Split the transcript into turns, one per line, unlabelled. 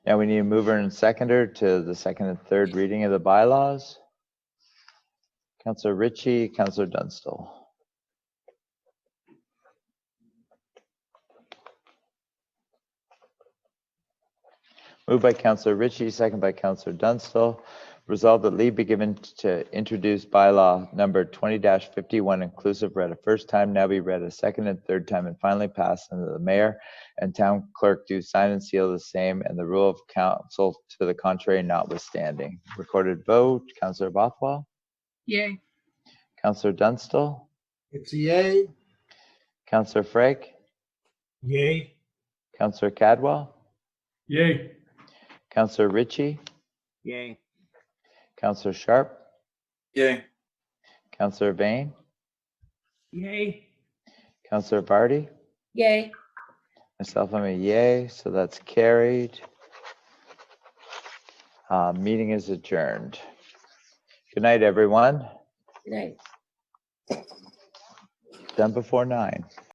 Now we need a mover and seconder to the second and third reading of the bylaws. Counselor Ritchie, Counselor Dunstall. Moved by Counselor Ritchie, second by Counselor Dunstall. Resolved that leave be given to introduce bylaw number twenty fifty-one inclusive read a first time, now be read a second and third time, and finally passed under the mayor and town clerk do sign and seal the same and the rule of council to the contrary notwithstanding. Recorded vote, Counselor Bothwell,
Yay.
Counselor Dunstall,
It's a yay.
Counselor Frake,
Yay.
Counselor Cadwell,
Yay.
Counselor Ritchie,
Yay.
Counselor Sharp,
Yay.
Counselor Vane,
Yay.
Counselor Vardy,
Yay.
myself, I'm a yay, so that's carried. Uh, meeting is adjourned. Good night, everyone.
Good night.
Done before nine.